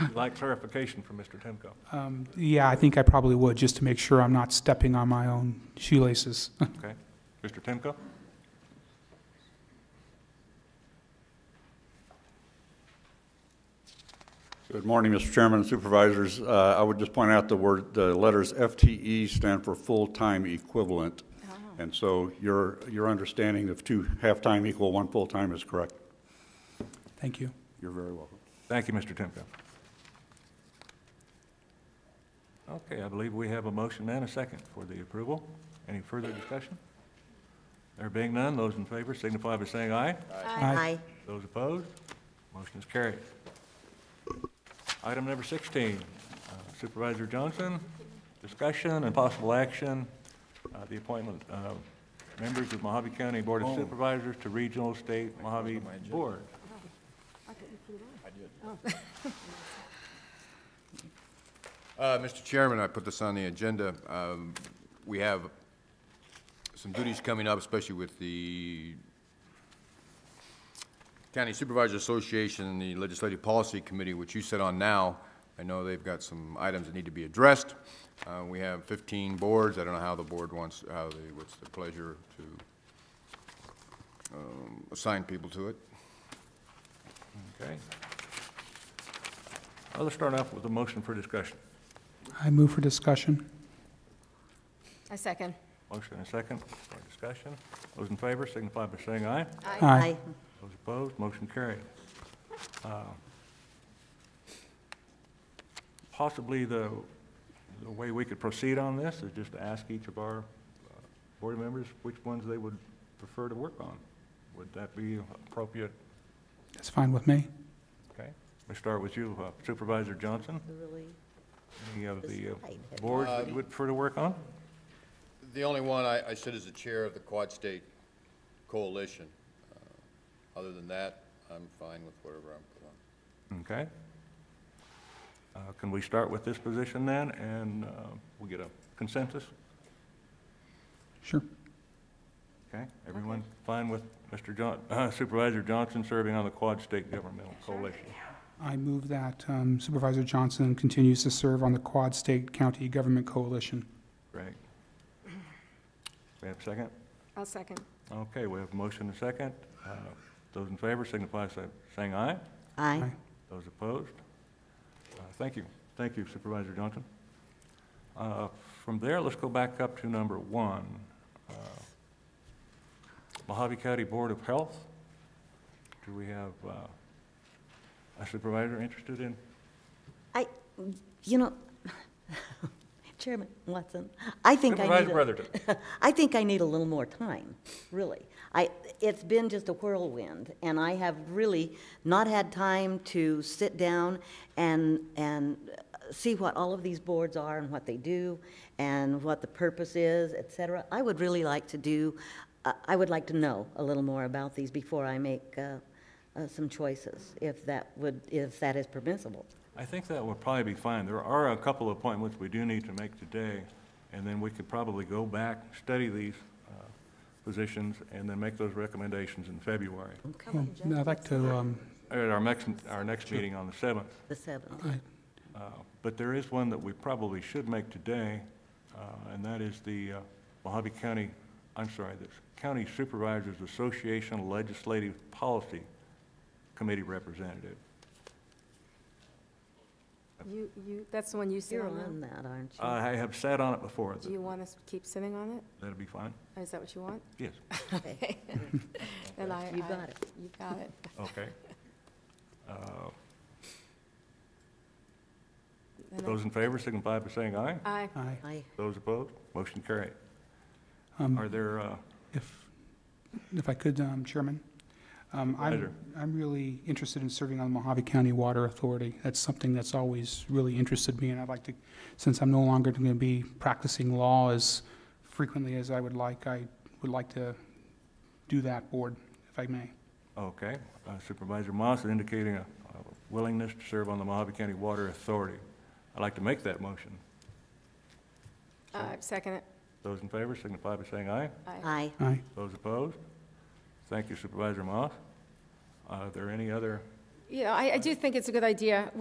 You'd like clarification from Mr. Timko. Um, Yeah, I think I probably would, just to make sure I'm not stepping on my own shoelaces. Okay. Mr. Timko? Good morning, Mr. Chairman and Supervisors. Uh, I would just point out the word, the letters FTE stand for full-time equivalent. And so your, your understanding of two half-time equal one full-time is correct. Thank you. You're very welcome. Thank you, Mr. Timko. Okay, I believe we have a motion and a second for the approval. Any further discussion? There being none, those in favor signify by saying aye. Aye. Those opposed, motion is carried. Item number 16, uh, Supervisor Johnson, discussion and possible action, uh, the appointment of members of Mojave County Board of Supervisors to regional state Mojave Board. Uh, Mr. Chairman, I put this on the agenda. Um, We have some duties coming up, especially with the County Supervisors Association and the Legislative Policy Committee, which you sit on now. I know they've got some items that need to be addressed. Uh, We have 15 boards. I don't know how the board wants, how the, what's the pleasure to um, assign people to it. Okay. Well, Let's start off with a motion for discussion. I move for discussion. I second. Motion and a second for discussion. Those in favor signify by saying aye. Aye. Those opposed, motion carried. Uh, Possibly the, the way we could proceed on this is just to ask each of our uh, board members which ones they would prefer to work on. Would that be appropriate? That's fine with me. Okay, let's start with you uh, Supervisor Johnson. Any of the uh, boards that you would prefer to work on? The only one I, I sit as the chair of the Quad State Coalition. Uh, Other than that, I'm fine with whatever I'm put on. Okay. Uh, Can we start with this position then, and uh, we'll get a consensus? Sure. Okay, everyone fine with Mr. John, uh, Supervisor Johnson serving on the Quad State Governmental Coalition? I move that um, Supervisor Johnson continues to serve on the Quad State County Government Coalition. Great. We have a second? I'll second. Okay, we have a motion and a second. Uh, Those in favor signify by saying aye. Aye. Those opposed? Uh, Thank you. Thank you Supervisor Johnson. Uh, From there, let's go back up to number one. uh, Mojave County Board of Health. Do we have uh, a supervisor interested in? I, you know, Chairman Watson, I think I need. Supervisor a- Brotherton. I think I need a little more time, really. I, it's been just a whirlwind, and I have really not had time to sit down and, and uh, see what all of these boards are and what they do, and what the purpose is, et cetera. I would really like to do, I- I would like to know a little more about these before I make uh, uh, some choices, if that would, if that is permissible. I think that would probably be fine. There are a couple of appointments we do need to make today, and then we could probably go back, study these uh, positions, and then make those recommendations in February, Well, I'd like to, um, at our next, our next meeting on the 7th. The seventh. I- Uh, But there is one that we probably should make today, uh, and that is the uh, Mojave County, I'm sorry, the County Supervisors Association Legislative Policy Committee Representative. You, you, that's the one you sit You're on on that, aren't you? I have sat on it before. now. Do you want us to keep sitting on it? That'd be fine? Or Is that what you want? Yes. Okay. Then I. You I- got it. You got it. Okay. Uh, Then I- Those in favor signify by saying aye. Aye. Aye. I- Those opposed, motion carried. Um, Are there, uh, If, if I could, um, Chairman, um, Pleasure. I'm, I'm really interested in serving on the Mojave County Water Authority. That's something that's always really interested me, and I'd like to, since I'm no longer going to be practicing law as frequently as I would like, I would like to do that board, if I may. okay, uh, Supervisor Moss is indicating a a willingness to serve on the Mojave County Water Authority. I'd like to make that motion. Uh, Second it. Those in favor signify by saying aye. Aye. Aye. Aye. Those opposed? Thank you Supervisor Moss. Are there any other Yeah, I, I do think it's a good idea.